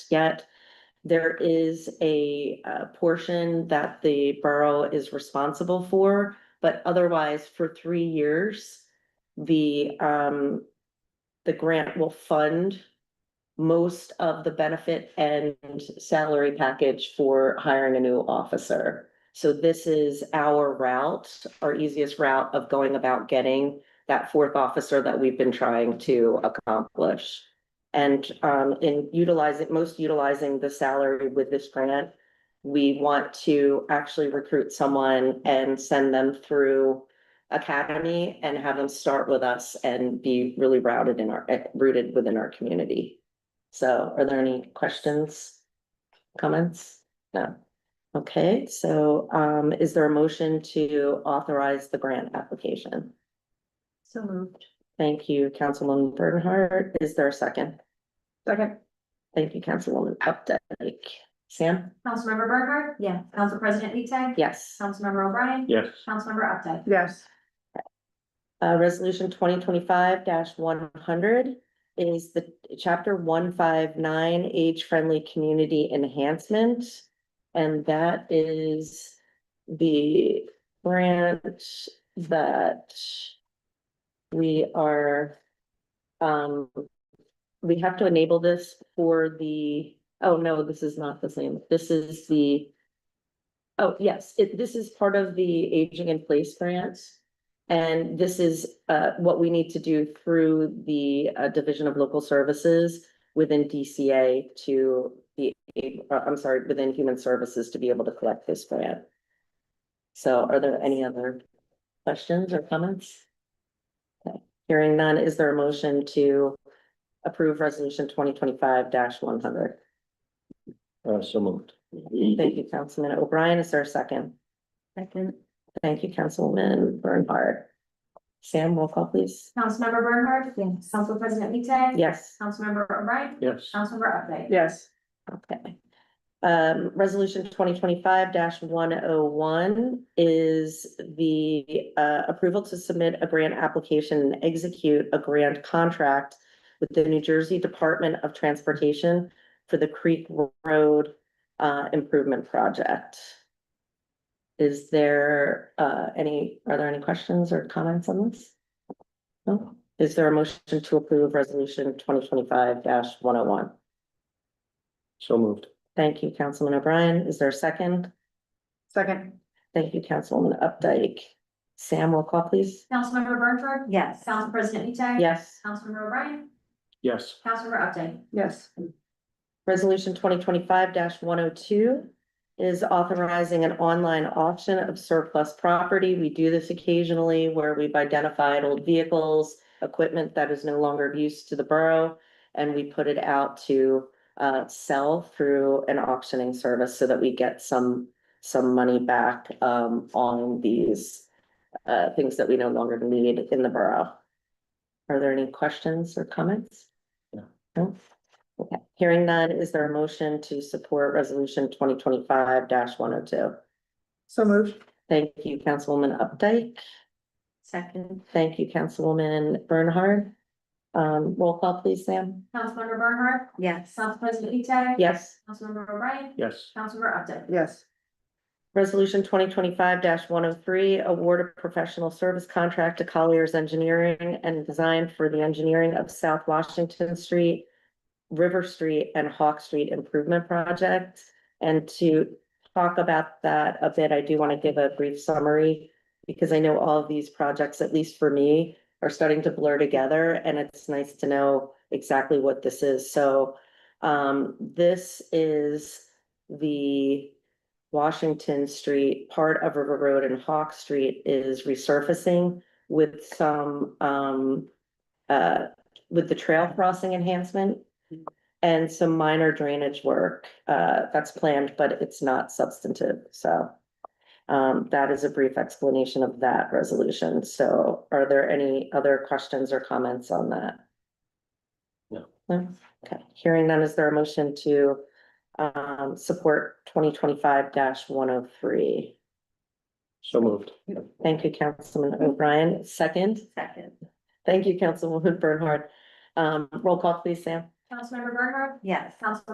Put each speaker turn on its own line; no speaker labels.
yet. There is a uh, portion that the borough is responsible for, but otherwise for three years, the um, the grant will fund most of the benefit and salary package for hiring a new officer. So this is our route, our easiest route of going about getting that fourth officer that we've been trying to accomplish. And um in utilizing, most utilizing the salary with this grant, we want to actually recruit someone and send them through academy and have them start with us and be really routed in our, eh, rooted within our community. So are there any questions? Comments? No. Okay, so um is there a motion to authorize the grant application?
So moved.
Thank you, Councilwoman Bernhardt. Is there a second?
Second.
Thank you, Councilwoman Updike. Sam?
Councilmember Bernhardt?
Yes.
Council President Lee Tag?
Yes.
Councilmember O'Brien?
Yes,
Councilmember Updike?
Yes.
Uh, resolution twenty twenty-five one hundred is the chapter one five nine age-friendly community enhancement. And that is the grant that we are, um, we have to enable this for the, oh no, this is not the same. This is the, oh yes, it, this is part of the aging in place grants. And this is uh what we need to do through the uh Division of Local Services within DCA to be, ab- uh, I'm sorry, within Human Services to be able to collect this grant. So are there any other questions or comments? Okay, Hearing none, is there a motion to approve resolution twenty twenty-five one hundred?
uh, so moved.
Thank you, Councilman O'Brien. Is there a second?
Second.
Thank you, Councilwoman Bernhardt. Sam, roll call, please.
Councilmember Bernhardt?
Yes.
Council President Lee Tag?
Yes.
Councilmember O'Brien?
Yes,
Councilmember Updike?
Yes.
Okay. Um, resolution twenty twenty-five one oh one is the uh approval to submit a grant application and execute a grant contract with the New Jersey Department of Transportation for the Creek Road uh improvement project. Is there uh any, are there any questions or comments on this? No? Is there a motion to approve resolution twenty twenty-five one oh one?
so moved.
Thank you, Councilman O'Brien. Is there a second?
Second.
Thank you, Councilwoman Updike. Sam, roll call, please.
Councilmember Bernhardt?
Yes.
Council President Lee Tag?
Yes.
Councilmember O'Brien?
Yes,
Councilmember Updike?
Yes.
Resolution twenty twenty-five one oh two is authorizing an online auction of surplus property. We do this occasionally where we've identified old vehicles, equipment that is no longer of use to the borough, and we put it out to uh, sell through an auctioning service so that we get some, some money back um, on these uh, things that we no longer need in the borough. Are there any questions or comments?
No.
No? Okay, hearing none, is there a motion to support resolution twenty twenty-five one oh two?
So moved.
Thank you, Councilwoman Updike.
Second.
Thank you, Councilwoman Bernhard. Um, roll call please, Sam.
Councilmember Bernhardt?
Yes.
Council President Lee Tag?
Yes.
Councilmember O'Brien?
yes,
Councilmember Updike?
Yes.
Resolution twenty twenty-five one oh three, award a professional service contract to Colliers Engineering and Design for the engineering of South Washington Street, River Street, and Hawk Street Improvement Project. And to talk about that a bit, I do want to give a brief summary because I know all of these projects, at least for me, are starting to blur together, and it's nice to know exactly what this is. So um, this is the Washington Street, part of River Road and Hawk Street is resurfacing with some, um, uh, with the trail crossing enhancement and some minor drainage work, uh, that's planned, but it's not substantive, so. Um, that is a brief explanation of that resolution. So are there any other questions or comments on that?
No.
No? Okay, hearing none, is there a motion to um, support twenty twenty-five one oh three?
so moved.
Thank you, Councilman O'Brien. Second,
Second.
thank you, Councilwoman Bernhardt. Um, roll call please, Sam.
Councilmember Bernhardt?
Yes.
Council